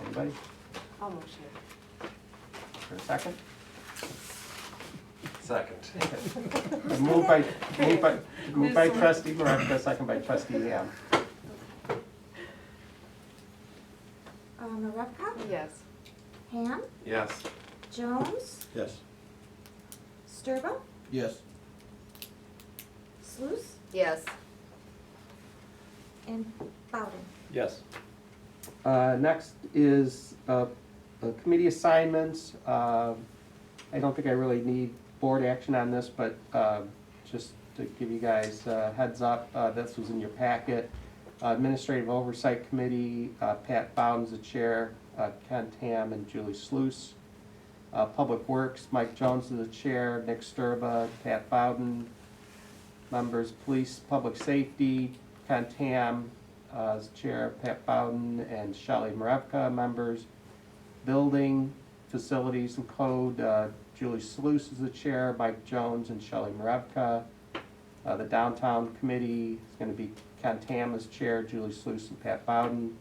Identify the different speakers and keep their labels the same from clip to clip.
Speaker 1: Anybody?
Speaker 2: I'll motion.
Speaker 1: For a second?
Speaker 3: Second.
Speaker 1: Moved by, moved by, moved by
Speaker 2: This one.
Speaker 1: trustee Maravka, second by trustee Ham.
Speaker 4: Uh, Maravka?
Speaker 2: Yes.
Speaker 4: Ham?
Speaker 3: Yes.
Speaker 4: Jones?
Speaker 5: Yes.
Speaker 4: Sturba?
Speaker 5: Yes.
Speaker 4: Sluse?
Speaker 2: Yes.
Speaker 4: And Bowden?
Speaker 5: Yes.
Speaker 1: Uh, Next is uh, the committee assignments. Uh, I don't think I really need board action on this, but uh, just to give you guys uh, heads up, uh, this was in your packet. Administrative Oversight Committee, uh, Pat Bowden's the chair, uh, Ken Tam and Julie Sluice. Uh, Public Works, Mike Jones is the chair, Nick Sturba, Pat Bowden. Members, Police, Public Safety, Ken Tam, uh, as Chair Pat Bowden and Shelley Marevka, members. Building, Facilities and Code, uh, Julie Sluice is the chair, Mike Jones and Shelley Marevka. Uh, The Downtown Committee is going to be Ken Tam as chair, Julie Sluice and Pat Bowden.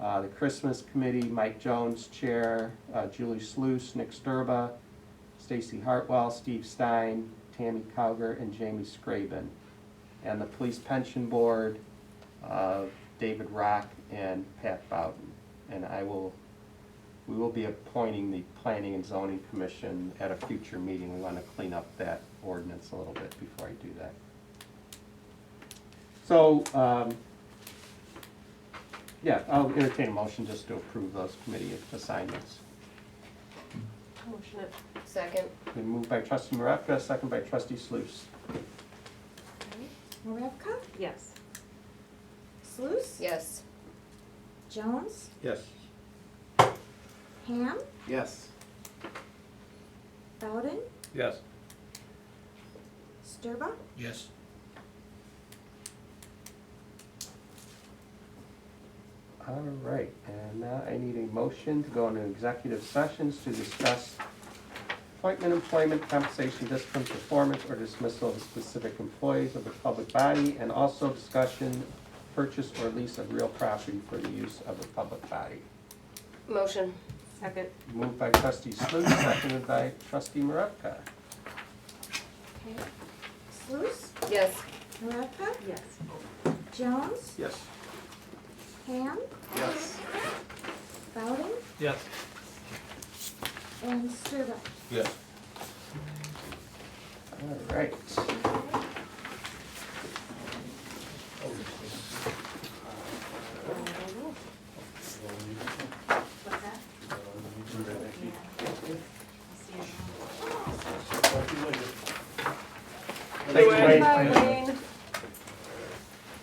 Speaker 1: Uh, The Christmas Committee, Mike Jones, chair, uh, Julie Sluice, Nick Sturba, Stacy Hartwell, Steve Stein, Tammy Cowger, and Jamie Scraven. And the Police Pension Board, uh, David Rock and Pat Bowden. And I will, we will be appointing the Planning and Zoning Commission at a future meeting. We want to clean up that ordinance a little bit before I do that. So, um, yeah, I'll entertain a motion just to approve those committee assignments.
Speaker 2: Motion it. Second.
Speaker 1: Been moved by trustee Maravka, second by trustee Sluse.
Speaker 4: Maravka?
Speaker 2: Yes.
Speaker 4: Sluse?
Speaker 2: Yes.
Speaker 4: Jones?
Speaker 5: Yes.
Speaker 4: Ham?
Speaker 3: Yes.
Speaker 4: Bowden?
Speaker 5: Yes.
Speaker 4: Sturba?
Speaker 5: Yes.
Speaker 1: All right, and now I need a motion to go into executive sessions to discuss appointment, employment, compensation, discipline, performance, or dismissal of specific employees of the public body, and also discussion, purchase or lease of real property for the use of the public body.
Speaker 2: Motion. Second.
Speaker 1: Moved by trustee Sluse, seconded by trustee Maravka.
Speaker 4: Okay. Sluse?
Speaker 2: Yes.
Speaker 4: Maravka?
Speaker 2: Yes.
Speaker 4: Jones?
Speaker 5: Yes.
Speaker 4: Ham?
Speaker 3: Yes.
Speaker 4: Bowden?
Speaker 5: Yes.
Speaker 4: And Sturba?
Speaker 5: Yes.
Speaker 1: All right.
Speaker 4: What's that?
Speaker 1: Thank
Speaker 3: Thank you,
Speaker 1: you,
Speaker 3: Wayne.
Speaker 1: Wayne.